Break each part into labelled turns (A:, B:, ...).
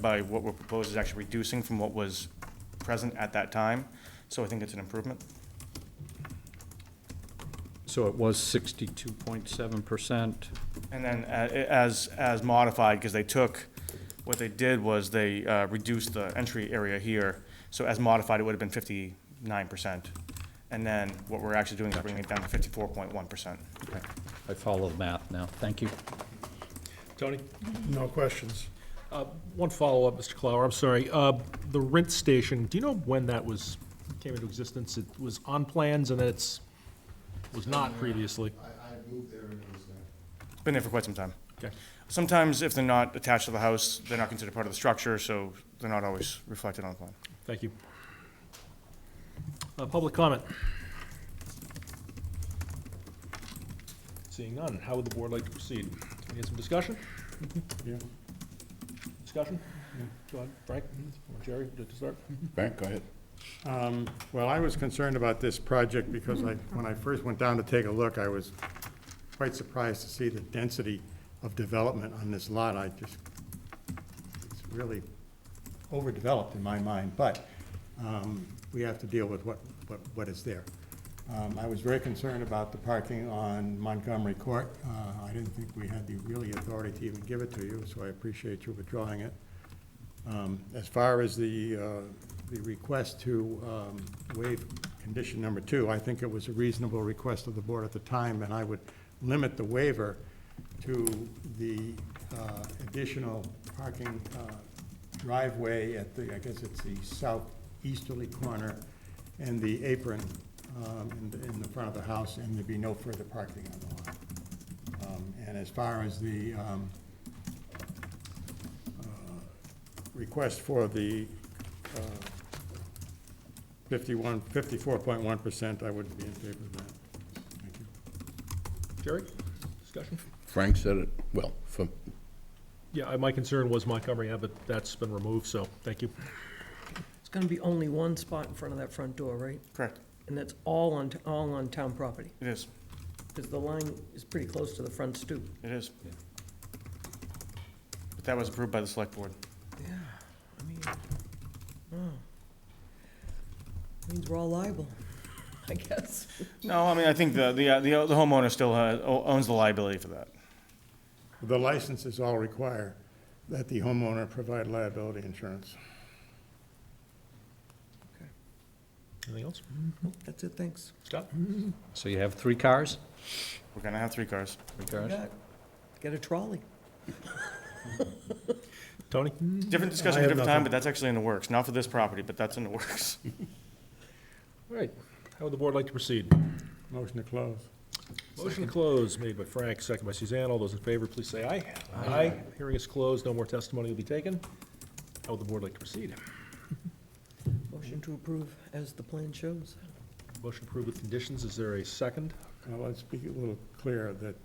A: by what we're proposing is actually reducing from what was present at that time, so I think it's an improvement.
B: So it was sixty-two point seven percent.
A: And then uh, a- as, as modified, because they took, what they did was they uh, reduced the entry area here, so as modified, it would have been fifty-nine percent. And then what we're actually doing is bringing it down to fifty-four point one percent.
B: I follow the math now. Thank you.
C: Tony?
D: No questions.
C: Uh, One follow-up, Mr. Clower, I'm sorry. Uh, The rent station, do you know when that was, came into existence? It was on plans and then it's, was not previously?
E: I, I moved there and it was there.
A: Been there for quite some time.
C: Okay.
A: Sometimes if they're not attached to the house, they're not considered part of the structure, so they're not always reflected on the plan.
C: Thank you. Uh, Public comment? Seeing none, how would the board like to proceed? Do we need some discussion? Discussion? Go ahead, Frank, or Jerry, would you like to start?
F: Frank, go ahead.
D: Um, Well, I was concerned about this project because I, when I first went down to take a look, I was quite surprised to see the density of development on this lot. I just, it's really overdeveloped in my mind, but um, we have to deal with what, what- what is there. Um, I was very concerned about the parking on Montgomery Court. Uh, I didn't think we had the really authority to even give it to you, so I appreciate you withdrawing it. Um, As far as the, uh, the request to um, waive condition number two, I think it was a reasonable request of the board at the time, and I would limit the waiver to the uh, additional parking uh, driveway at the, I guess it's the southeasterly corner, and the apron um, in, the- in the front of the house, and there'd be no further parking on the lot. Um, And as far as the, um, request for the uh, 51, 54.1%, I wouldn't be in favor of that. Thank you.
C: Jerry, discussion?
F: Frank said it, well, for,
C: Yeah, I- my concern was Montgomery Ave, but that's been removed, so thank you.
G: It's gonna be only one spot in front of that front door, right?
A: Correct,
G: And that's all on, all on town property,
A: it is,
G: because the line is pretty close to the front stoop.
A: it is. But that was approved by the select board.
G: Yeah, I mean, wow. Means we're all liable, I guess.
A: No, I mean, I think the, the, uh, the the homeowner still uh, o- owns the liability for that.
D: The licenses all require that the homeowner provide liability insurance.
C: Anything else?
G: That's it, thanks.
C: Scott?
B: So you have three cars?
A: We're gonna have three cars.
B: Three cars?
G: Got- Get a trolley.
C: Tony?
A: Different discussion,
D: I have
A: different time,
D: nothing.
A: but that's actually in the works. Not for this property, but that's in the works.
C: All right, how would the board like to proceed?
D: Motion to close.
C: Motion to close made by Frank, second by Suzanne. All those in favor, please say aye. Aye. Hearing is closed, no more testimony will be taken. How would the board like to proceed?
G: Motion to approve as the plan shows.
C: Motion approved with conditions, is there a second?
D: Now, let's be a little clear that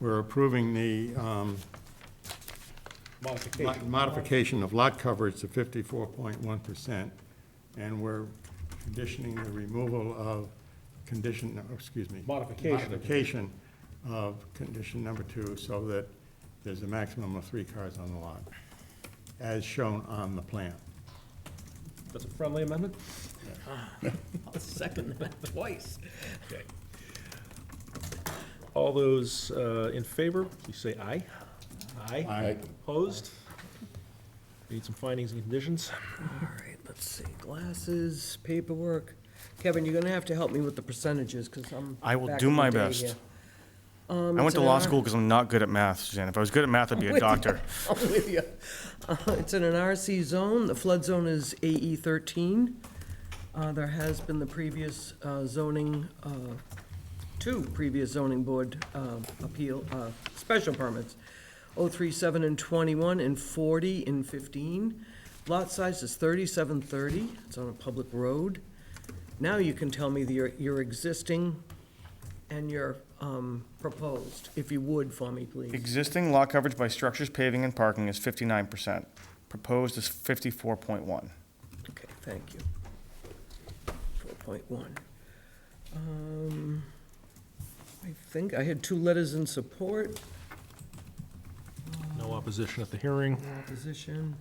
D: we're approving the um, mo-
C: Modification.
D: modification of lot coverage to 54.1%, and we're conditioning the removal of condition, no, excuse me.
C: Modification of-
D: modification of condition number two, so that there's a maximum of three cars on the lot, as shown on the plan.
C: That's a friendly amendment?
G: I'll second that twice.
C: Okay. All those uh, in favor, please say aye. Aye.
D: I
C: Opposed? Need some findings and conditions?
G: All right, let's see, glasses, paperwork. Kevin, you're gonna have to help me with the percentages, because I'm.
A: I will
G: back
A: do
G: in the
A: my
G: day
A: best.
G: here.
A: I
G: Um,
A: went
G: it's
A: to
G: an
A: law
G: R-
A: school because I'm not good at math, Suzanne. If I was good at math, I'd be a
G: With you.
A: doctor.
G: I'm with you. Uh, It's in an RC zone, the flood zone is AE thirteen. Uh, there has been the previous uh, zoning, uh, two previous zoning board, uh, appeal, uh, special permits. Oh, three, seven, and twenty-one, and forty, and fifteen. Lot size is thirty-seven thirty, it's on a public road. Now you can tell me the, your, your existing and your, um, proposed, if you would for me, please.
A: Existing lot coverage by structures, paving, and parking is fifty-nine percent. Proposed is fifty-four point one.
G: Okay, thank you. Four point one. Um, I think I had two letters in support.
C: No opposition at the hearing.
G: No opposition.